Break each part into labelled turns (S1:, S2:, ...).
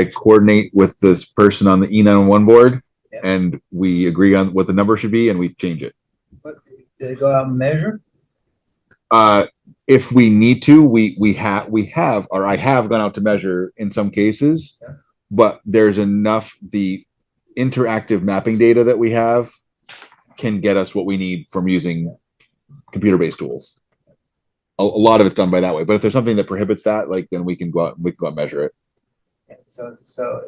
S1: I coordinate with this person on the E nine one board
S2: Yeah.
S1: and we agree on what the number should be and we change it.
S2: What, do they go out and measure?
S1: Uh, if we need to, we, we have, we have, or I have gone out to measure in some cases.
S2: Yeah.
S1: But there's enough, the interactive mapping data that we have can get us what we need from using computer-based tools. A, a lot of it's done by that way, but if there's something that prohibits that, like, then we can go out, we can go out and measure it.
S2: Yeah, So, so,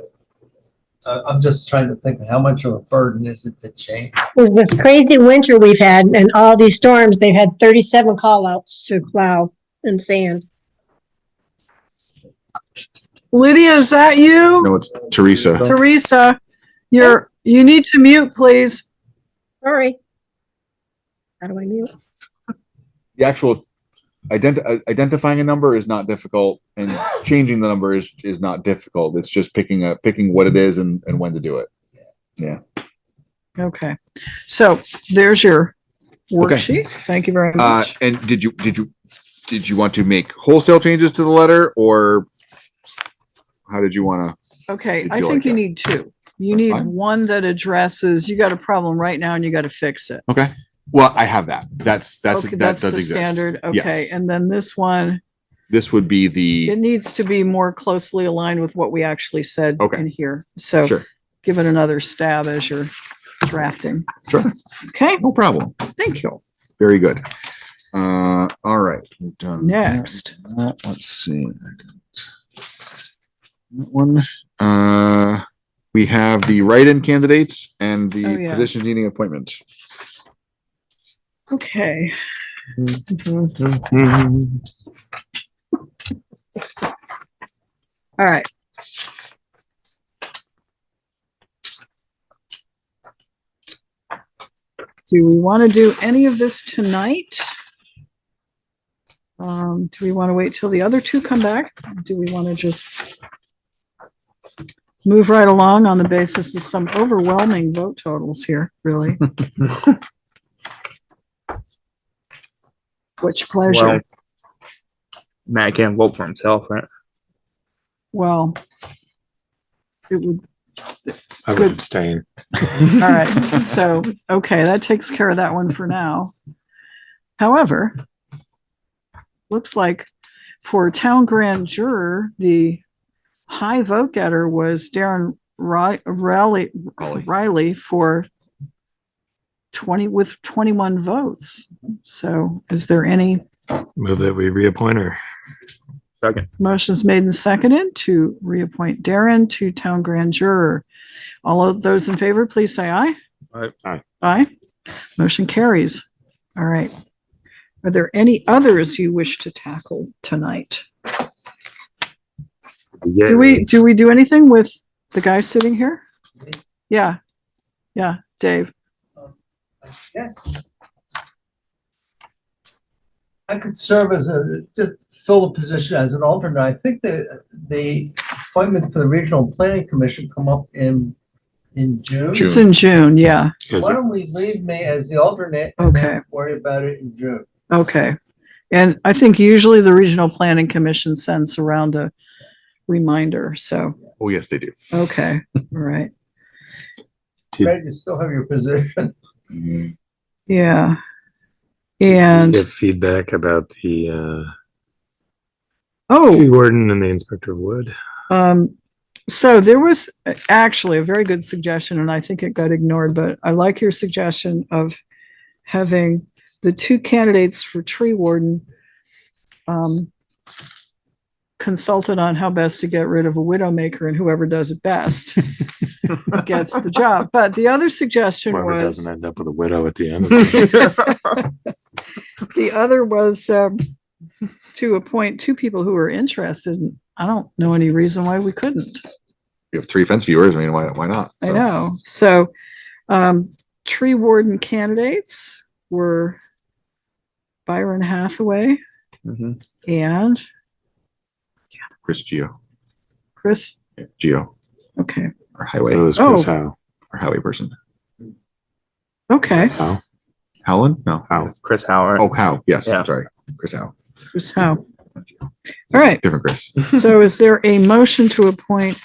S2: uh, I'm just trying to think, how much of a burden is it to change?
S3: was this crazy winter we've had and all these storms, they've had thirty-seven callouts to plow and sand.
S4: Lydia, is that you?
S5: No, it's Teresa.
S4: Teresa, you're, you need to mute, please.
S3: Sorry. How do I mute?
S1: The actual identi- uh, identifying a number is not difficult and changing the number is, is not difficult. It's just picking a, picking what it is and, and when to do it.
S4: Okay. So there's your
S1: Okay.
S4: worksheet. Thank you very
S1: Uh,
S4: much.
S1: and did you, did you, did you want to make wholesale changes to the letter or how did you want to?
S4: Okay,
S1: did
S4: I
S1: you
S4: think
S1: like
S4: you
S1: that?
S4: need two. You
S1: That's
S4: need
S1: fine.
S4: one that addresses, you got a problem right now and you got to fix it.
S5: Okay. Well, I have that. That's, that's,
S4: Okay,
S5: that does
S4: the
S5: exist.
S4: Standard, okay.
S5: Yes.
S4: And then this one,
S5: This would be
S4: it
S5: the,
S4: needs to be more closely aligned with what we actually said
S5: Okay.
S4: in here. So
S5: Sure.
S4: give it another stab as you're drafting.
S5: Sure.
S4: Okay,
S5: no problem.
S4: thank you.
S5: Very good. Uh, all right. We've done that,
S4: Next.
S1: Uh,
S5: that. Let's see. That one, uh,
S1: We have the write-in candidates and
S4: Oh,
S1: the
S4: yeah.
S1: position needing appointment.
S4: Okay. All right. Do we want to do any of this tonight? Um, do we want to wait till the other two come back? Do we want to just move right along on the basis of some overwhelming vote totals here, really? Which
S6: Well,
S4: pleasure.
S6: Matt can't vote for himself, right?
S4: Well, it would
S7: I would
S4: Good.
S7: abstain.
S4: All right, so, okay, that takes care of that one for now. However, looks like for town grand juror, the high vote getter was Darren Ri- Riley,
S5: Raleigh.
S4: Riley for twenty, with twenty-one votes. So is there any
S7: Move that we reappoint her.
S6: Second.
S4: Motion's made and seconded to reappoint Darren to town grand juror. All of those in favor, please say aye.
S5: Aye.
S7: Aye.
S4: Aye. Motion carries. All right. Are there any others you wish to tackle tonight? Do we, do we do anything with the guy sitting here? Yeah. Yeah, Dave.
S2: Yes. I could serve as a, just fill the position as an alternate. I think the, the appointment for the Regional Planning Commission come up in, in June.
S4: It's in June, yeah.
S7: Is
S2: Why
S7: it-
S2: don't we leave me as the alternate and
S4: Okay.
S2: then worry about it in June?
S4: Okay. And I think usually the Regional Planning Commission sends around a reminder, so,
S5: Oh, yes, they do.
S4: okay, all right.
S7: Yeah.
S2: Fred, you still have your position.
S1: Mm-hmm.
S4: Yeah. And,
S7: Give feedback about the uh, tree
S4: oh,
S7: warden and the inspector of wood.
S4: um, so there was actually a very good suggestion, and I think it got ignored, but I like your suggestion of having the two candidates for tree warden um, consulted on how best to get rid of a widowmaker, and whoever does it best gets the job. But the other suggestion
S7: Whoever
S4: was.
S7: doesn't end up with a widow at the end. of it.
S4: The other was um, to appoint two people who were interested. and I don't know any reason why we couldn't.
S1: We have three fence viewers. I mean, why, why not?
S4: I
S1: So-
S4: know. So um, tree warden candidates were Byron Hathaway
S6: Mm-hmm.
S1: Mhm.
S4: and
S1: Chris Geo,
S4: Chris.
S1: Geo,
S4: Okay.
S1: our
S7: It
S1: highway,
S7: was Chris
S4: Oh.
S7: Howe.
S1: our highway person.
S4: Okay.
S7: Howe?
S1: Howland? No.
S7: Howe.
S6: Chris Howard.
S1: Oh, How? Yes.
S6: Yeah.
S1: Sorry. Chris How.
S4: Chris Howe. All right.
S1: Different Chris.
S4: So is there a motion to appoint